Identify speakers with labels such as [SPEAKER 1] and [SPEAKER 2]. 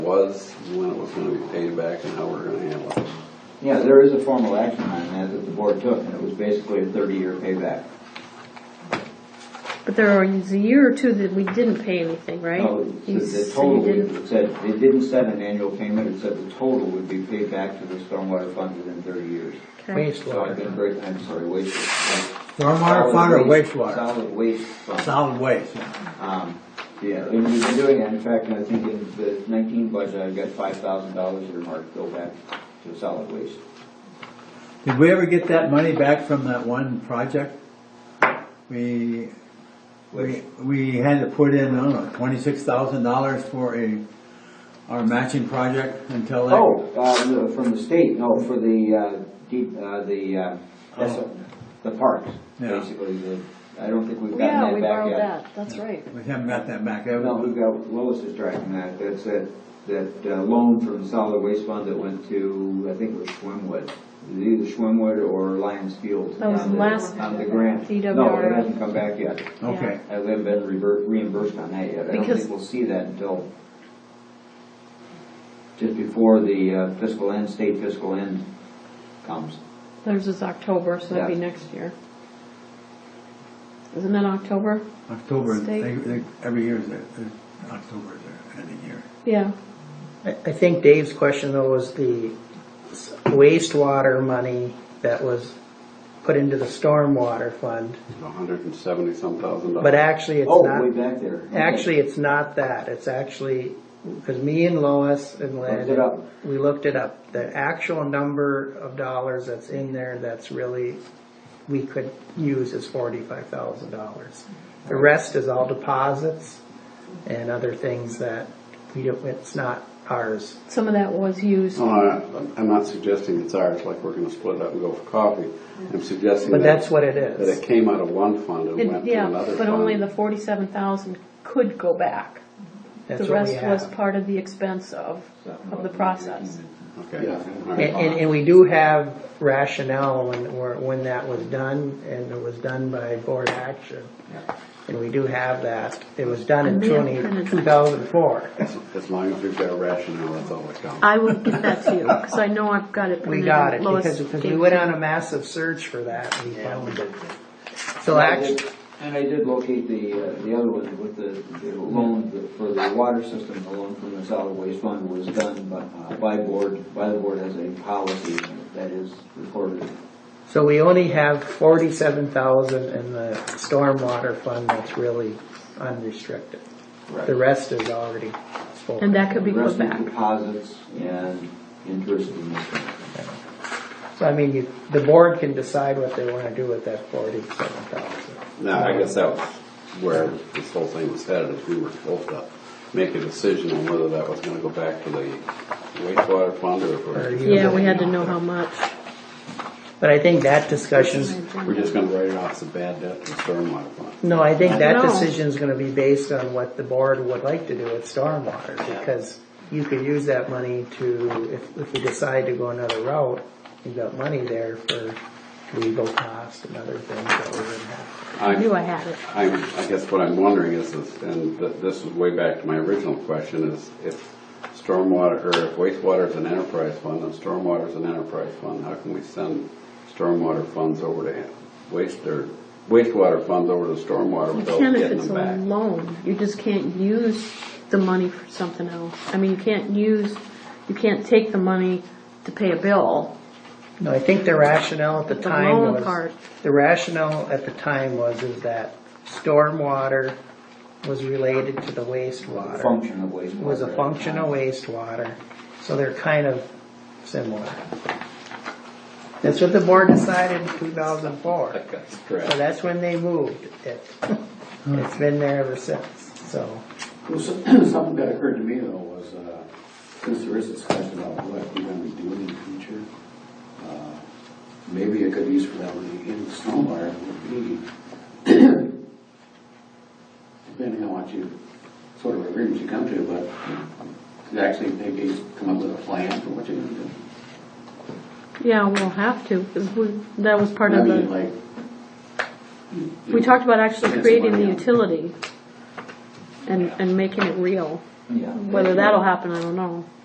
[SPEAKER 1] was, when it was gonna be paid back, and how we're gonna handle it.
[SPEAKER 2] Yeah, there is a formal action on that that the board took, and it was basically a thirty-year payback.
[SPEAKER 3] But there was a year or two that we didn't pay anything, right?
[SPEAKER 2] No, the-
[SPEAKER 3] You
[SPEAKER 2] the
[SPEAKER 3] s-
[SPEAKER 2] total,
[SPEAKER 3] you didn't-
[SPEAKER 2] it said, it didn't set an annual payment, it said the total would be paid back to the stormwater fund within thirty years.
[SPEAKER 3] okay.
[SPEAKER 2] So I've been
[SPEAKER 4] Wastewater.
[SPEAKER 2] very, I'm sorry, wastewater.
[SPEAKER 4] Stormwater fund or
[SPEAKER 2] Solid waste-
[SPEAKER 4] wastewater?
[SPEAKER 2] Solid waste fund.
[SPEAKER 4] Solid waste, yeah.
[SPEAKER 2] Um, Yeah, and we've been doing that, in fact, I think in the nineteen budget, I've got five thousand dollars earmarked, to go back to solid waste.
[SPEAKER 4] Did we ever get that money back from that one project? We, we, we had to put in, I don't know, twenty-six thousand dollars for a, our matching project until that.
[SPEAKER 2] Oh, uh, no, from the state, no, for the, uh, deep, uh, the, uh, that's,
[SPEAKER 4] Oh.
[SPEAKER 2] the parks,
[SPEAKER 4] Yeah.
[SPEAKER 2] basically, the, I don't think we've
[SPEAKER 5] Yeah,
[SPEAKER 2] gotten
[SPEAKER 5] we
[SPEAKER 2] that back
[SPEAKER 5] borrowed
[SPEAKER 2] yet.
[SPEAKER 5] that, that's right.
[SPEAKER 4] We haven't got that back, have we?
[SPEAKER 2] No, we've got, Lois is tracking that, that's that, that uh, loan from the solid waste fund that went to, I think it was Schwimmwood. It was Either Schwimmwood or Lions Field.
[SPEAKER 3] That was
[SPEAKER 2] on the-
[SPEAKER 3] last-
[SPEAKER 2] On the grant. No, it
[SPEAKER 3] DWRA.
[SPEAKER 2] hasn't come back yet.
[SPEAKER 4] Okay,
[SPEAKER 2] I haven't been rever- reimbursed on that yet. I don't
[SPEAKER 3] Because-
[SPEAKER 2] think we'll see that until just before the uh, fiscal end, state fiscal end comes.
[SPEAKER 3] Theirs is October, so that'd be
[SPEAKER 2] Yeah.
[SPEAKER 3] next year. Isn't it October?
[SPEAKER 4] October,
[SPEAKER 3] State.
[SPEAKER 4] they, they, every year is, their- their- October is their ending year.
[SPEAKER 3] Yeah.
[SPEAKER 6] I I think Dave's question though was the s- wastewater money that was put into the stormwater fund,
[SPEAKER 1] It's a hundred and seventy-some thousand dollars.
[SPEAKER 6] but actually it's
[SPEAKER 2] Oh, way
[SPEAKER 6] not,
[SPEAKER 2] back there. Okay.
[SPEAKER 6] actually it's not that, it's actually, because me and Lois and
[SPEAKER 2] Looked it up.
[SPEAKER 6] Lynn, we looked it up. The actual number of dollars that's in there that's really, we could use is forty-five thousand dollars. The rest is all deposits and other things that we don't, it's not ours.
[SPEAKER 3] Some of that was used.
[SPEAKER 2] Oh,
[SPEAKER 1] No, I- I'm not suggesting it's ours, like we're gonna split it up and go for coffee. I'm suggesting
[SPEAKER 6] But that's
[SPEAKER 1] that,
[SPEAKER 6] what it
[SPEAKER 1] that
[SPEAKER 6] is.
[SPEAKER 1] it came out of one fund and
[SPEAKER 3] It-
[SPEAKER 1] went to
[SPEAKER 3] Yeah,
[SPEAKER 1] another
[SPEAKER 3] but only the
[SPEAKER 1] fund.
[SPEAKER 3] forty-seven thousand could go back.
[SPEAKER 6] That's
[SPEAKER 3] The
[SPEAKER 6] what we
[SPEAKER 3] rest was
[SPEAKER 6] have.
[SPEAKER 3] part of the expense of, of the process.
[SPEAKER 1] Okay. all
[SPEAKER 6] And,
[SPEAKER 1] right.
[SPEAKER 6] and, and we do have rationale when, or when that was done, and it was done by board action. And we do have that. It was done in
[SPEAKER 3] I may have
[SPEAKER 6] twenty,
[SPEAKER 3] printed that.
[SPEAKER 6] two thousand four.
[SPEAKER 1] As as long as we've got a rationale, that's all that counts.
[SPEAKER 3] I will give that to you, because I know I've got it.
[SPEAKER 6] We
[SPEAKER 3] printed
[SPEAKER 6] got it,
[SPEAKER 3] and Lois
[SPEAKER 6] because, because we
[SPEAKER 3] gave
[SPEAKER 6] went
[SPEAKER 3] it.
[SPEAKER 6] on a massive search for that, and we found it. So
[SPEAKER 2] And I
[SPEAKER 6] actually,
[SPEAKER 2] did- And I did locate the, uh, the other one with the, the loan for the water system, the loan from the solid waste fund was done by, uh, by board, by the board as a policy that is recorded.
[SPEAKER 6] so we only have forty-seven thousand in the stormwater fund that's really unrestricted. The rest is already spoken.
[SPEAKER 3] And that could be
[SPEAKER 2] The
[SPEAKER 3] put
[SPEAKER 2] rest is
[SPEAKER 3] back.
[SPEAKER 2] Deposits and interest in this.
[SPEAKER 6] So I mean, you, the board can decide what they wanna do with that forty-seven thousand.
[SPEAKER 1] Now, I guess that was where this whole thing was headed, is we were supposed to make a decision on whether that was gonna go back to the wastewater fund or if
[SPEAKER 6] Or
[SPEAKER 1] we're.
[SPEAKER 6] you-
[SPEAKER 3] Yeah, we had to know how much.
[SPEAKER 6] But I think that discussion's,
[SPEAKER 1] We're just gonna write it off as a bad debt to the stormwater fund.
[SPEAKER 6] no, I think that
[SPEAKER 3] No.
[SPEAKER 6] decision's gonna be based on what the board would like to do with stormwater, because you could use that money to, if, if you decide to go another route, you've got money there for legal costs and other things that we're gonna have.
[SPEAKER 3] I knew I had it.
[SPEAKER 1] I'm, I guess what I'm wondering is, is- and th- this is way back to my original question, is if stormwater, or if wastewater is an enterprise fund, and stormwater is an enterprise fund, how can we send stormwater funds over to waste, or wastewater funds over to stormwater
[SPEAKER 3] You
[SPEAKER 1] without
[SPEAKER 3] can if
[SPEAKER 1] getting
[SPEAKER 3] it's
[SPEAKER 1] them
[SPEAKER 3] a
[SPEAKER 1] back?
[SPEAKER 3] loan, you just can't use the money for something else. I mean, you can't use, you can't take the money to pay a bill.
[SPEAKER 6] No, I think the rationale at the
[SPEAKER 3] The
[SPEAKER 6] time
[SPEAKER 3] loan
[SPEAKER 6] was.
[SPEAKER 3] part.
[SPEAKER 6] The rationale at the time was is that stormwater was related to the wastewater.
[SPEAKER 2] Function of wastewater.
[SPEAKER 6] was a function of wastewater, so they're kind of similar. That's what the board decided in two thousand four,
[SPEAKER 1] That's
[SPEAKER 6] so
[SPEAKER 1] correct.
[SPEAKER 6] that's when they moved it. It's been there ever since, so.
[SPEAKER 7] Well, some- Something that occurred to me though was, uh, since there is discussion about what we're gonna be doing in the future, uh, maybe a good use for that would be in the stormwater would be, depending on what you, sort of agreement you come to, but to actually maybe come up with a plan for what you're gonna do.
[SPEAKER 3] Yeah, we'll have to, because we, that was part
[SPEAKER 7] I
[SPEAKER 3] of
[SPEAKER 7] mean,
[SPEAKER 3] the,
[SPEAKER 7] like.
[SPEAKER 3] we talked about actually
[SPEAKER 7] Get some
[SPEAKER 3] creating the
[SPEAKER 7] money out.
[SPEAKER 3] utility and, and making it real.
[SPEAKER 2] yeah.
[SPEAKER 3] Whether that'll happen, I don't know.